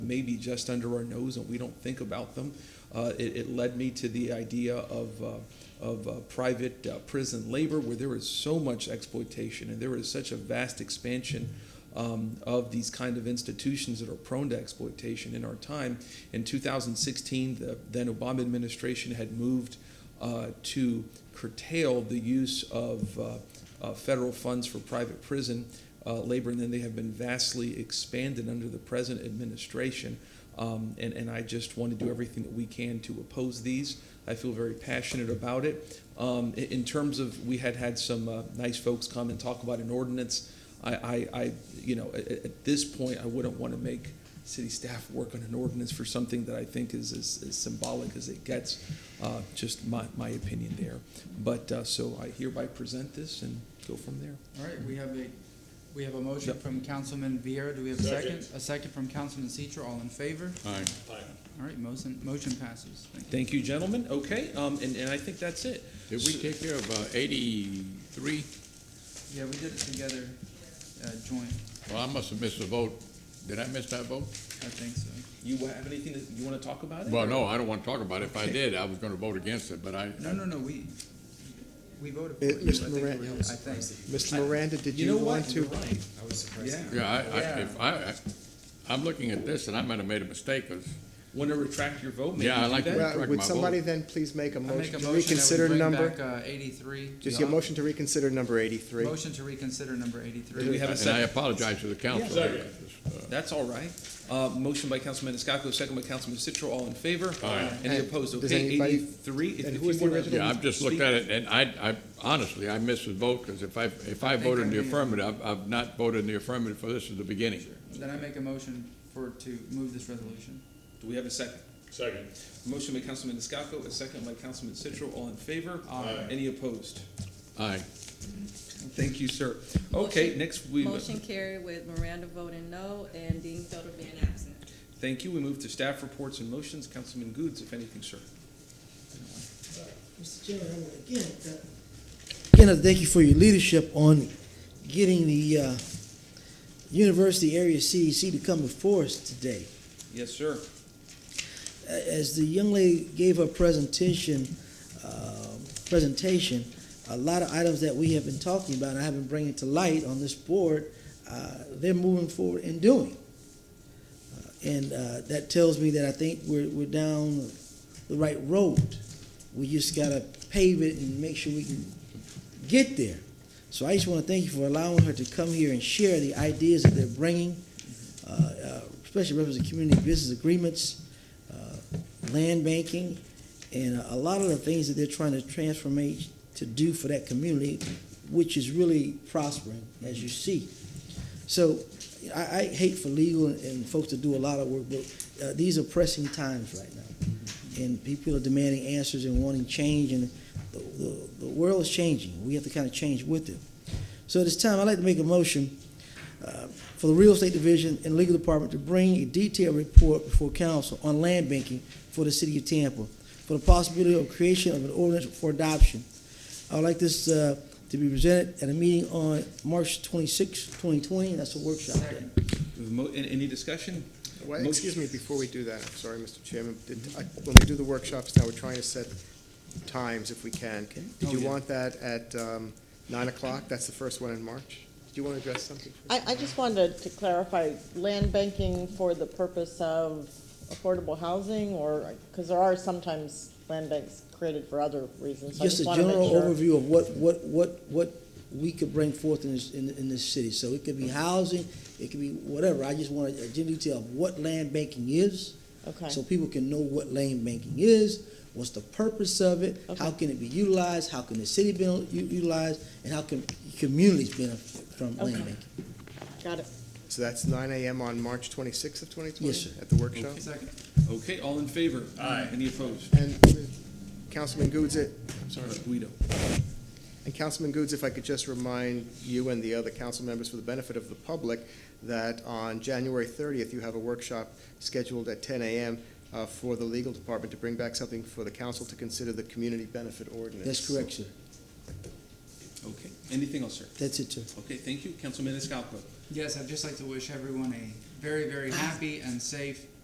may be just under our nose and we don't think about them. Uh, it, it led me to the idea of, uh, of uh, private uh, prison labor, where there is so much exploitation and there is such a vast expansion um, of these kind of institutions that are prone to exploitation in our time. In 2016, the then Obama administration had moved uh, to curtail the use of uh, uh, federal funds for private prison uh, labor, and then they have been vastly expanded under the present administration. Um, and, and I just want to do everything that we can to oppose these. I feel very passionate about it. Um, in, in terms of, we had had some uh, nice folks come and talk about an ordinance. I, I, I you know, at, at this point, I wouldn't want to make city staff work on an ordinance for something that I think is as, as symbolic as it gets. Uh, just my, my opinion there. But uh, so I hereby present this and go from there. All right, we have a, we have a motion from Councilman Viera. Do we have a second? A second from Councilman Citro. All in favor? Aye. All right, motion, motion passes. Thank you. Thank you, gentlemen. Okay, um, and, and I think that's it. Did we take care of uh, 83? Yeah, we did it together, uh, joint, Well, I must have missed a vote. Did I miss that vote? I think so. You have anything that you want to talk about? It? Well, no, I don't want to talk about it. If I did, I was going to vote against it, but I, No, no, no, we, we voted for Eh, it. I Mr. think we- Moran- I think. Mr. Miranda, did You you know what? want to? You're right. I was surprised. Yeah. yeah, I, I, if Yeah. I, I- I'm looking at this and I might have made a mistake 'cause Want to retract your vote? Maybe Yeah, I do like that. to- Well, Correct Would my somebody vote. then please make a I make motion a to motion that reconsider we bring number? back, uh, eighty-three. Just your motion to reconsider number eighty-three. Motion to reconsider number eighty-three. Do we have a and I second? apologize to the council. That's all right. Uh, motion by Councilman Maniscalco, second by Councilman Citro. All in favor? Aye. Any And opposed? does Okay, anybody- eighty-three. If- if and who you was the wanna original? Yeah, I've just looked speak- at it and I, I, honestly, I missed the vote because if I, if I think voted I in the may have- affirmative, I've, I've not voted in the affirmative for this at the beginning. Then I make a motion for, to move this resolution. Do we have a second? Second. Motion by Councilman Maniscalco, a second by Councilman Citro. All in favor? Aye. Any opposed? Aye. Thank you, sir. Okay, Motion- next we, Motion carried with Miranda voting no and Dean Felder being absent. thank you. We move to staff reports and motions. Councilman Goods, if anything, sir. Mr. Chairman, I want to again, uh, again, I thank you for your leadership on getting the uh, University Area CEC to come before us today. Yes, sir. A- As the young lady gave her presentation, um, presentation, a lot of items that we have been talking about, and I have been bringing to light on this board, uh, they're moving forward and doing. Uh, And uh, that tells me that I think we're, we're down the right road. We just gotta pave it and make sure we can get there. So I just want to thank you for allowing her to come here and share the ideas that they're bringing, uh, uh, especially reference to community business agreements, uh, land banking, and a lot of the things that they're trying to transformate to do for that community, which is really prospering, as you see. So I, I hate for legal and folks to do a lot of work, but uh, these are pressing times right now. And people are demanding answers and wanting change, and the, the, the world is changing. We have to kind of change with it. So at this time, I'd like to make a motion uh, for the Real Estate Division and Legal Department to bring a detailed report before council on land banking for the city of Tampa for the possibility of creation of an ordinance for adoption. I would like this uh, to be presented at a meeting on March 26, 2020, that's a workshop day. We have a mo- an- Any discussion? Well, Mo- excuse me, before we do that, I'm sorry, Mr. Chairman, did, I- when we do the workshops now, we're trying to set times if we can. Did Oh, you yeah. want that at um, nine o'clock? That's the first one in March? Do you want to address something? first? I, I just wanted to clarify, land banking for the purpose of affordable housing, or, because there are sometimes land banks created for other reasons. so I Just a want to make general sure. overview of what, what, what, what we could bring forth in this, in, in this city. So it could be housing, it could be whatever, I just want a general detail of what land banking is, so Okay, people can know what land banking is, what's the purpose of it, how Okay. can it be utilized, how can the city be u- utilized, and how can communities benefit from land Okay. banking. got it. So that's nine AM on March twenty-sixth of twenty twenty? Yes, sir. At the workshop? Second. Okay, all in favor? Aye. Any opposed? And uh, Councilman Goods, it, Sorry, Guido. And Councilman Goods, if I could just remind you and the other council members for the benefit of the public, that on January 30th, you have a workshop scheduled at 10 a.m. uh, for the legal department to bring back something for the council to consider the community benefit ordinance. That's correct, sir. Okay, anything else, sir? That's it, sir. Okay, thank you. Councilman Maniscalco. Yes, I'd just like to wish everyone a very, very happy and safe